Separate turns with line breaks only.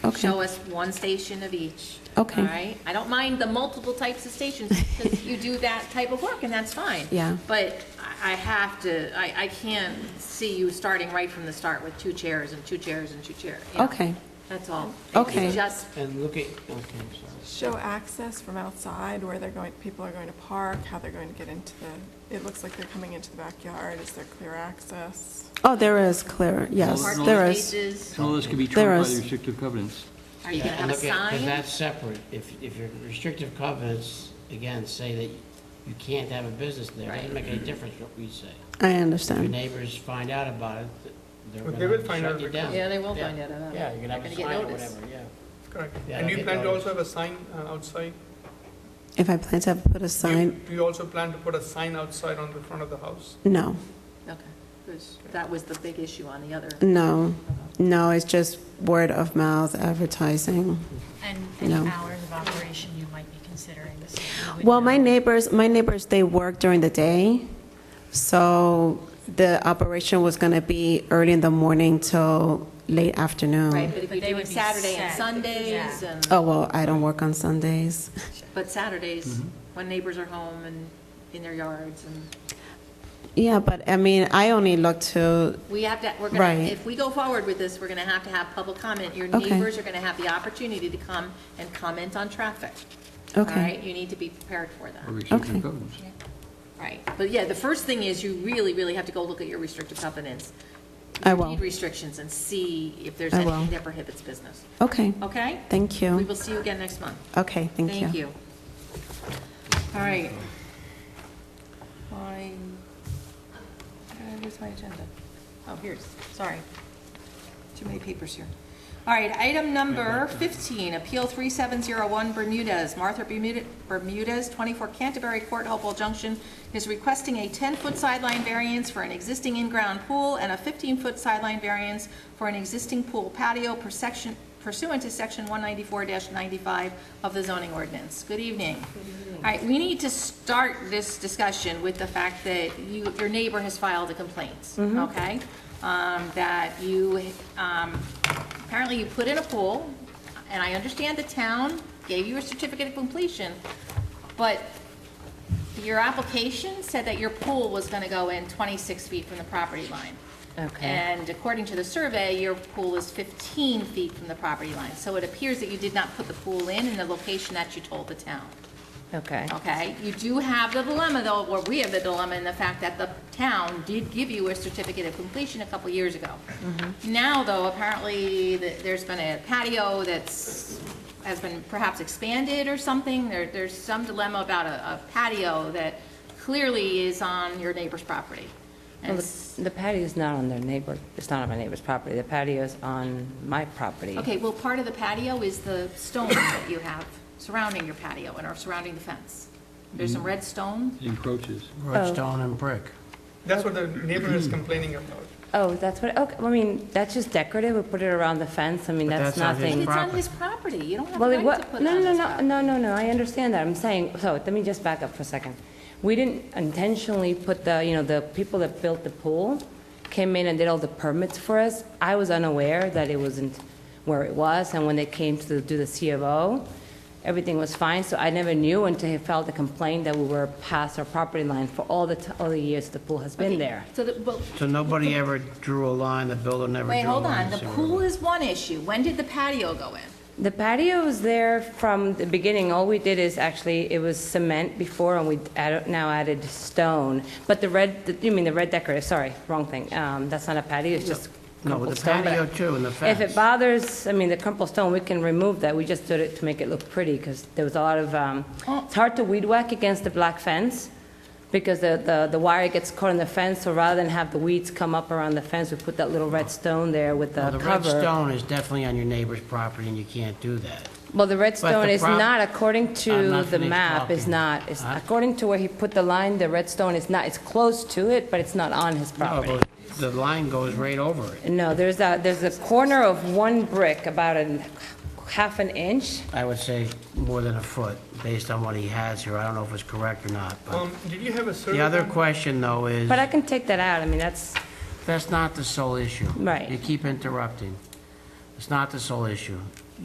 show us one station of each.
Okay.
All right? I don't mind the multiple types of stations, because you do that type of work, and that's fine.
Yeah.
But I I have to, I, I can't see you starting right from the start with two chairs and two chairs and two chairs. you know?
Okay.
That's all.
Okay.
It's Just,
And look at, okay, I'm sorry.
Show access from outside, where they're going, people are going to park, how they're going to get into the, it looks like they're coming into the backyard, is there clear access?
Oh, there is clear, yes,
parking
there is.
spaces,
All this can be
There
trumped by
is-
the restrictive covenants.
are you gonna
And
have a
look at- Cause
sign?
that's separate. If, if your restrictive covenants, again, say that you can't have a business there, it doesn't make any difference what we say.
I
If your
understand.
neighbors find out about it, th-
But
they're
they will
gonna
find
shut
out
you
because-
down.
Yeah, they will find out about it.
Yeah, you're gonna have
They're
a
gonna
sign
get
or
noticed.
whatever, yeah.
Correct.
Yeah,
And
I
you
get
plan to
noticed.
also have a sign uh, outside?
If I plan to have put a
Do you-
sign,
Do you also plan to put a sign outside on the front of the house?
no,
Okay, 'cause that was the big issue on the other.
no, no, it's just word of mouth advertising.
And any
No.
hours of operation you might be considering this?
Well, my neighbors, my neighbors, they work during the day, so the operation was going to be early in the morning till late afternoon.
Right, but if
But
you're
they
doing
would be
Saturday and
set.
Sundays
Yeah.
and.
Oh, well, I don't work on Sundays.
But Saturdays, when neighbors are home and in their yards, and
Yeah, but I mean, I only look to,
we have to, we're gonna,
Right.
if we go forward with this, we're gonna have to have public comment. Your
Okay.
neighbors are gonna have the opportunity to come and comment on traffic. All
Okay.
right? You need to be prepared for
Or
that.
Okay.
restrictive covenants.
Right. But yeah, the first thing is you really, really have to go look at your restrictive covenants.
I
your
will.
deed Restrictions and see if there's
I
anything
will.
that prohibits business.
okay,
Okay?
thank
We
you.
will see you again next month.
Okay, thank you.
Thank you. All right. I, uh, where's my agenda? Oh, here's, sorry. Too many papers here. All right, item number 15, Appeal 3701 Bermudez. Martha Bermuda- Bermudez, 24 Canterbury Court, Hopewell Junction, is requesting a 10-foot sideline variance for an existing in-ground pool and a 15-foot sideline variance for an existing pool patio per section- pursuant to Section 194-95 of the zoning ordinance. Good evening. All right, we need to start this discussion with the fact that you, your neighbor has filed a complaint, okay? Um, That you, um, apparently you put in a pool, and I understand the town gave you a certificate of completion, but your application said that your pool was gonna go in 26 feet from the property line.
Okay.
And according to the survey, your pool is 15 feet from the property line. So it appears that you did not put the pool in in the location that you told the town.
Okay.
Okay, you do have the dilemma though, or we have the dilemma in the fact that the town did give you a certificate of completion a couple years ago. Now though, apparently th- there's been a patio that's, has been perhaps expanded or something. There, there's some dilemma about a a patio that clearly is on your neighbor's property.
Well,
And s-
The the patio's not on their neighbor, it's not on my neighbor's property. The patio's on my property.
Okay, well, part of the patio is the stone that you have surrounding your patio and are surrounding the fence. There's some red stone.
It encroaches.
Oh.
Red stone and brick.
That's what the neighbor is complaining about.
Oh, that's what, okay, I mean, that's just decorative, we put it around the fence, I mean,
But
that's
that's not his
nothing.
It's on
Property.
his property, you don't have a
Well, it
right
wa,
to put it
no,
on
no,
his
no,
property.
no, no, no, I understand that, I'm saying, so, let me just back up for a second. We didn't intentionally put the, you know, the people that built the pool came in and did all the permits for us. I was unaware that it wasn't where it was, and when they came to do the C of O, everything was fine, so I never knew until he filed a complaint that we were past our property line for all the, t- all the years the pool has been there.
So the, but,
So nobody ever drew a line, the builder never drew a
wait,
line.
hold on, the
so-
pool is one issue, when did the patio go in?
The patio was there from the beginning. All we did is actually, it was cement before, and we add- now added stone. But the red, the- you mean the red decorative, sorry, wrong thing. Um, That's not a patio, it's just
No, with
crumpled
the
stone. but
patio too, and the
If
fence.
it bothers, I mean, the crumpled stone, we can remove that. We just did it to make it look pretty, because there was a lot of, um, it's hard to weed whack against the black fence, because the the the wire gets caught in the fence, so rather than have the weeds come up around the fence, we put that little red stone there with the
Well,
cover.
the red stone is definitely on your neighbor's property, and you can't do that.
Well, the redstone
the
is
prob-
not, according
I'm
to
not
the
finished
map, is
talking.
not, is-
Huh?
according to where he put the line, the redstone is not, it's close to it, but it's not on his
No,
property.
but the line goes right over it.
No, there's a, there's a corner of one brick, about a half an inch.
I would say more than a foot, based on what he has here. I don't know if it's correct or not, but.
Um, did you have a survey?
The other
done?
question, though, is,
But I can take that out, I mean, that's,
that's not the sole issue.
Right.
You keep interrupting. It's not the sole issue.